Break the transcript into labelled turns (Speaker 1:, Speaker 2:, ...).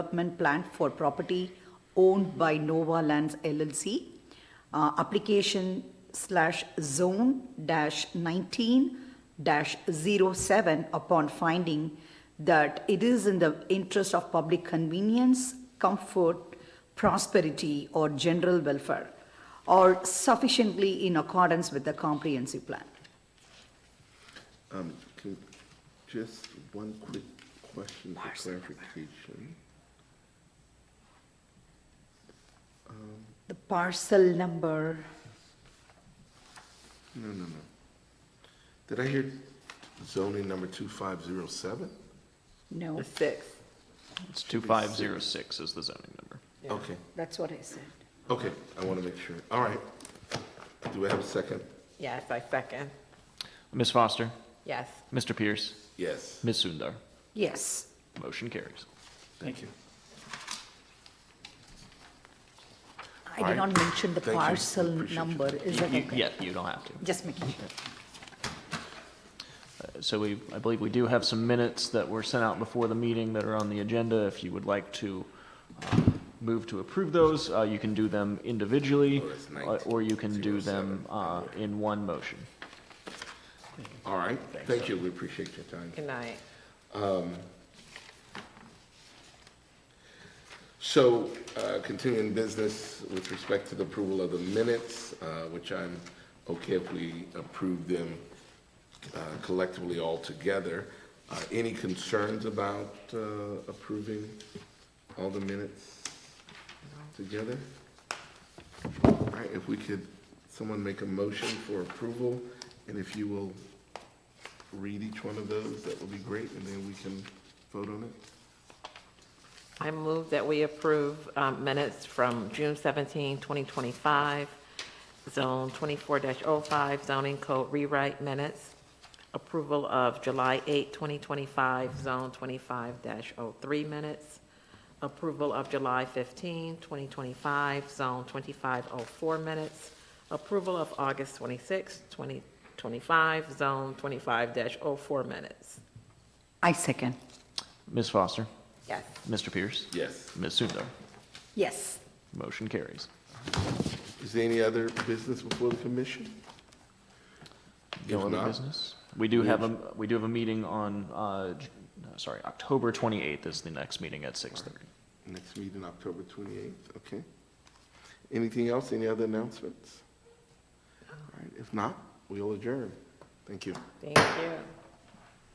Speaker 1: development plan for property owned by Nova Lands LLC, uh, application slash zone dash 19 dash 07 upon finding that it is in the interest of public convenience, comfort, prosperity, or general welfare, or sufficiently in accordance with the comprehensive plan.
Speaker 2: Um, can, just one quick question for clarification.
Speaker 1: The parcel number,
Speaker 2: No, no, no. Did I hear zoning number two five zero seven?
Speaker 1: no,
Speaker 3: The sixth.
Speaker 4: It's 2506 is the zoning number.
Speaker 2: Okay,
Speaker 1: that's what I said.
Speaker 2: okay, I want to make sure. All right. Do I have a second?
Speaker 3: Yes, I second.
Speaker 4: Ms. Foster,
Speaker 3: Yes.
Speaker 4: Mr. Pierce,
Speaker 2: Yes.
Speaker 4: Ms. Sundar,
Speaker 1: Yes,
Speaker 4: motion carries.
Speaker 2: Thank you.
Speaker 1: I did not mention the
Speaker 2: Thank you.
Speaker 1: parcel
Speaker 2: Appreciate you.
Speaker 1: number, is
Speaker 4: You-
Speaker 1: that
Speaker 4: you-
Speaker 1: okay?
Speaker 4: Yeah, you don't have to.
Speaker 1: Just making sure.
Speaker 4: Uh, So we, I believe we do have some minutes that were sent out before the meeting that are on the agenda. If you would like to uh, move to approve those, uh, you can do them individually,
Speaker 2: Oh, that's
Speaker 4: uh,
Speaker 2: 19,
Speaker 4: or you can do
Speaker 2: 07.
Speaker 4: them uh, in one motion.
Speaker 2: All right, thank you, we appreciate your time.
Speaker 3: Good night.
Speaker 2: So, uh, continuing business with respect to the approval of the minutes, uh, which I'm okay if we approve them uh, collectively all together. Uh, Any concerns about uh, approving all the minutes together? All right, if we could, someone make a motion for approval, and if you will read each one of those, that would be great, and then we can vote on it.
Speaker 3: I move that we approve um, minutes from June 17, 2025, Zone 24-05 zoning code rewrite minutes, approval of July 8, 2025, Zone 25-03 minutes, approval of July 15, 2025, Zone 2504 minutes, approval of August 26, 2025, Zone 25-04 minutes.
Speaker 1: I second.
Speaker 4: Ms. Foster,
Speaker 3: Yes.
Speaker 4: Mr. Pierce,
Speaker 2: Yes.
Speaker 4: Ms. Sundar,
Speaker 1: Yes,
Speaker 4: motion carries.
Speaker 2: Is there any other business before the commission?
Speaker 4: No
Speaker 2: If
Speaker 4: other
Speaker 2: not,
Speaker 4: business? We do have a, we do have a meeting on, uh, J- no, sorry, October 28th is the next meeting at 6:30.
Speaker 2: Next meeting, October 28th, okay. Anything else, any other announcements? All right, if not, we'll adjourn. Thank you.
Speaker 3: Thank you.